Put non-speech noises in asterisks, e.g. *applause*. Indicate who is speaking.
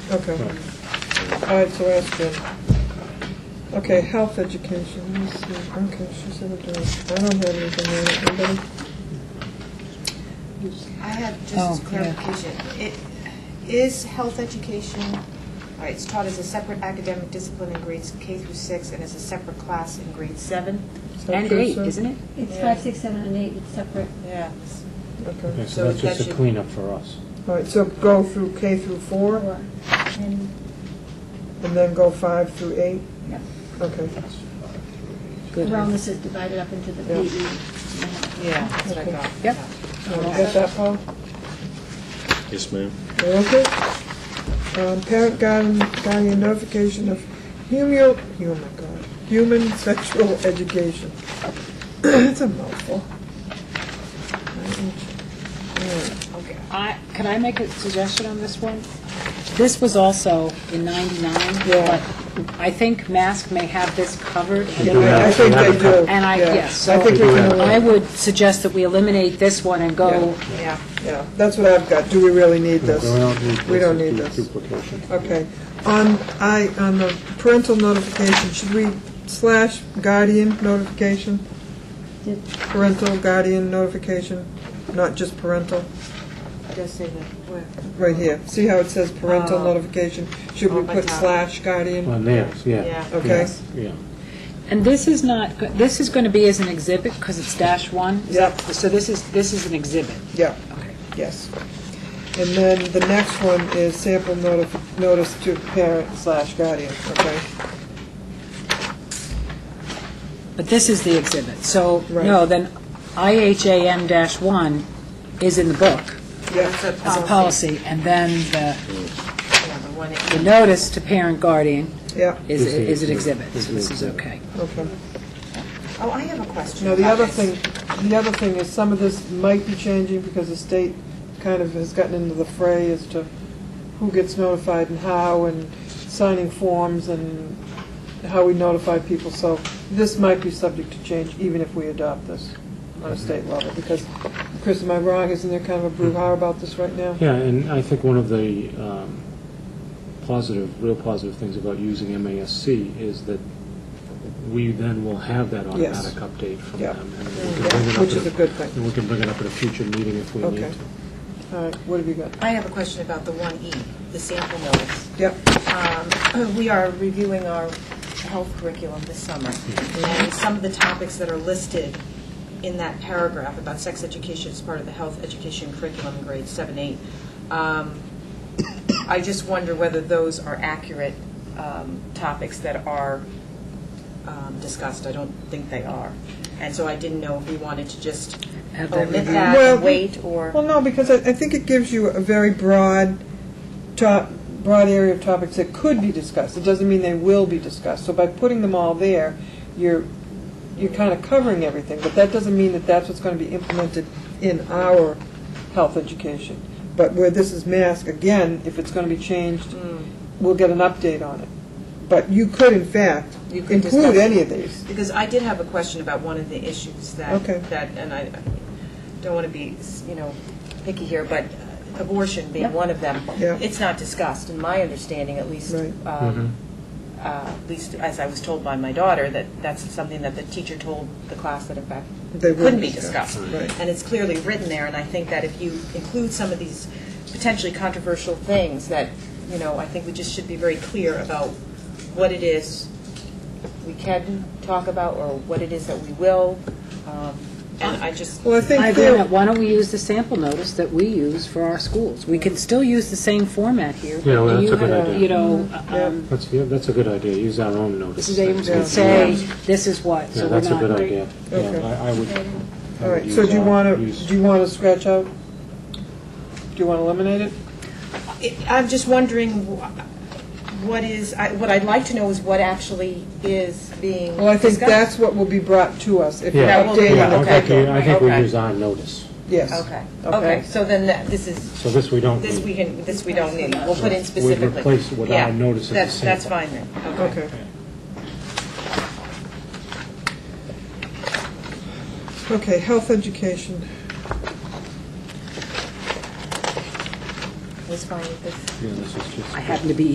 Speaker 1: Okay. All right, so that's good. Okay, health education, let me see, okay, she said it does. I don't have anything on it, anybody?
Speaker 2: I had
Speaker 3: Oh,
Speaker 2: just
Speaker 3: yeah.
Speaker 2: clarification. It- Is health education, all right, it's taught as a separate academic discipline in grades K through 6 and as a separate class in grade 7?
Speaker 1: Is that
Speaker 3: And
Speaker 1: good,
Speaker 3: eight,
Speaker 1: sir?
Speaker 3: isn't it?
Speaker 4: It's
Speaker 2: Yeah.
Speaker 4: five, six, seven, and eight, it's separate.
Speaker 2: Yeah.
Speaker 1: Okay,
Speaker 5: Okay,
Speaker 2: So
Speaker 5: so that's
Speaker 2: that
Speaker 5: just a
Speaker 2: should-
Speaker 5: cleanup for us.
Speaker 1: all right, so go through K through four,
Speaker 4: Four. And
Speaker 1: and then go five through eight?
Speaker 4: Yep.
Speaker 1: Okay,
Speaker 4: wellness is divided up into the E.
Speaker 1: Yeah.
Speaker 4: PE.
Speaker 2: Yeah, that's what I
Speaker 1: Okay.
Speaker 2: thought.
Speaker 3: Yep.
Speaker 1: you get that, Paul?
Speaker 6: Yes, ma'am.
Speaker 1: Okay. Um, Parent guardian, guardian notification of human, oh my God, human sexual education. *clears throat* It's a mouthful.
Speaker 2: Okay.
Speaker 3: I, can I make a suggestion on this one? This was also in 99,
Speaker 1: Yeah.
Speaker 3: but I think Mask may have this covered.
Speaker 5: We do
Speaker 1: I- I
Speaker 5: have-
Speaker 1: think
Speaker 5: we have
Speaker 1: they
Speaker 5: a couple-
Speaker 1: do.
Speaker 3: And I,
Speaker 1: Yeah.
Speaker 3: yes,
Speaker 1: I
Speaker 3: so
Speaker 1: think we can,
Speaker 3: I would suggest that we eliminate this one and go,
Speaker 2: Yeah.
Speaker 1: yeah, that's what I've got. Do we really need this?
Speaker 5: We don't need this.
Speaker 1: We don't need
Speaker 5: It's
Speaker 1: this.
Speaker 5: duplication.
Speaker 1: Okay. On, I, on the parental notification, should we slash guardian notification?
Speaker 4: Did-
Speaker 1: Parental guardian notification, not just parental?
Speaker 2: It does say that, where?
Speaker 1: Right here. See how it says parental
Speaker 2: Oh.
Speaker 1: notification? Should we
Speaker 2: Oh, my
Speaker 1: put
Speaker 2: God.
Speaker 1: slash guardian?
Speaker 5: On theirs, yeah.
Speaker 2: Yeah.
Speaker 1: Okay.
Speaker 5: Yeah.
Speaker 3: and this is not, this is going to be as an exhibit because it's dash one. Is that- So this is, this is an exhibit.
Speaker 1: Yeah,
Speaker 3: Okay.
Speaker 1: yes. And then the next one is sample notif- notice to parent slash guardian, okay?
Speaker 3: But this is the exhibit. So,
Speaker 1: Right.
Speaker 3: no, then IHAM dash one is in the book
Speaker 1: Yeah,
Speaker 3: as a policy, and then the
Speaker 2: Yeah, the one E. that-
Speaker 3: The notice to parent guardian
Speaker 1: yeah,
Speaker 3: is,
Speaker 5: Is the
Speaker 3: is an
Speaker 5: exhibit.
Speaker 3: exhibit, so this is okay.
Speaker 1: okay.
Speaker 2: Oh, I have a question.
Speaker 1: Now, the
Speaker 2: about
Speaker 1: other
Speaker 2: this.
Speaker 1: thing, the other thing is some of this might be changing because the state kind of has gotten into the fray as to who gets notified and how and signing forms and how we notify people. So this might be subject to change even if we adopt this on a state level because, Chris, am I wrong? Isn't there kind of a brouhaha about this right now?
Speaker 5: Yeah, and I think one of the um, positive, real positive things about using MASC is that we then will have that
Speaker 1: Yes.
Speaker 5: automatic update from
Speaker 1: Yeah.
Speaker 5: them. and we can bring it up
Speaker 1: Which
Speaker 5: at
Speaker 1: is a good thing.
Speaker 5: And we can bring it up at a future meeting if we need
Speaker 1: Okay.
Speaker 5: to.
Speaker 1: All right, what have you got?
Speaker 2: I have a question about the 1E, the sample notice.
Speaker 1: Yep,
Speaker 2: Um, *coughs* We are reviewing our health curriculum this summer, and some of the topics that are listed in that paragraph about sex education as part of the health education curriculum in grades 7, 8, um, *coughs* I just wonder whether those are accurate um, topics that are um, discussed. I don't think they are. And so I didn't know if we wanted to just
Speaker 3: Have that
Speaker 2: omit
Speaker 3: reviewed.
Speaker 2: that,
Speaker 1: Well,
Speaker 2: and wait, or...
Speaker 1: well, no, because I, I think it gives you a very broad top, broad area of topics that could be discussed. It doesn't mean they will be discussed. So by putting them all there, you're, you're kind of covering everything, but that doesn't mean that that's what's going to be implemented in our health education. But where this is mask, again, if it's going to be changed,
Speaker 2: Mm.
Speaker 1: we'll get an update on it. But you could, in fact,
Speaker 2: You could discuss
Speaker 1: include
Speaker 2: it.
Speaker 1: any of these.
Speaker 2: Because I did have a question about one of the issues that,
Speaker 1: Okay.
Speaker 2: that, and I don't want to be, you know, picky here, but abortion being
Speaker 4: Yep.
Speaker 2: one of them.
Speaker 1: Yeah.
Speaker 2: It's not discussed, in my understanding, at least,
Speaker 1: Right.
Speaker 2: um, uh, at least as I was told by my daughter, that that's something that the teacher told the class that in fact
Speaker 1: They wouldn't
Speaker 2: couldn't be
Speaker 1: discuss,
Speaker 2: discussed.
Speaker 1: right.
Speaker 2: And it's clearly written there, and I think that if you include some of these potentially controversial things, that, you know, I think we just should be very clear about what it is we can talk about or what it is that we will. um, And I just,
Speaker 1: Well, I think
Speaker 3: I agree
Speaker 1: there-
Speaker 3: on that. Why don't we use the sample notice that we use for our schools? We can still use the same format here.
Speaker 5: Yeah, well, that's
Speaker 3: You
Speaker 5: a good
Speaker 3: have,
Speaker 5: idea.
Speaker 3: You know, um,
Speaker 5: That's, yeah, that's a good idea, use our own notice.
Speaker 3: Mrs. Abrams
Speaker 1: Yeah.
Speaker 3: would say, this is what,
Speaker 5: Yeah,
Speaker 3: so we're
Speaker 5: that's a good
Speaker 3: not.
Speaker 5: idea.
Speaker 1: Okay.
Speaker 5: Yeah, I I would. I
Speaker 1: All right,
Speaker 5: would
Speaker 1: so
Speaker 5: use
Speaker 1: do you
Speaker 5: our-
Speaker 1: want to,
Speaker 5: use-
Speaker 1: do you want to scratch out? Do you want to eliminate it?
Speaker 2: I- I'm just wondering wh- what is, I- what I'd like to know is what actually is being discussed.
Speaker 1: Well, I think that's what will be brought to us, if you're
Speaker 5: Yeah,
Speaker 2: That will be
Speaker 1: updating
Speaker 5: yeah,
Speaker 1: the
Speaker 5: I
Speaker 2: okay.
Speaker 5: think
Speaker 1: curriculum.
Speaker 5: we- I think we
Speaker 2: Okay.
Speaker 5: use our notice.
Speaker 1: Yes.
Speaker 2: Okay,
Speaker 1: Okay.
Speaker 2: okay, so then that- this is,
Speaker 5: So this we don't
Speaker 2: this
Speaker 5: need.
Speaker 2: we can, this we don't need, we'll put in
Speaker 5: We'd
Speaker 2: specifically.
Speaker 5: replace what I
Speaker 2: Yeah,
Speaker 5: noticed as a
Speaker 2: that's- That's
Speaker 5: sample.
Speaker 2: fine then, okay.
Speaker 1: Okay. Okay, health education.
Speaker 7: was fine with this.
Speaker 2: Yeah, this is just.
Speaker 5: I happen to be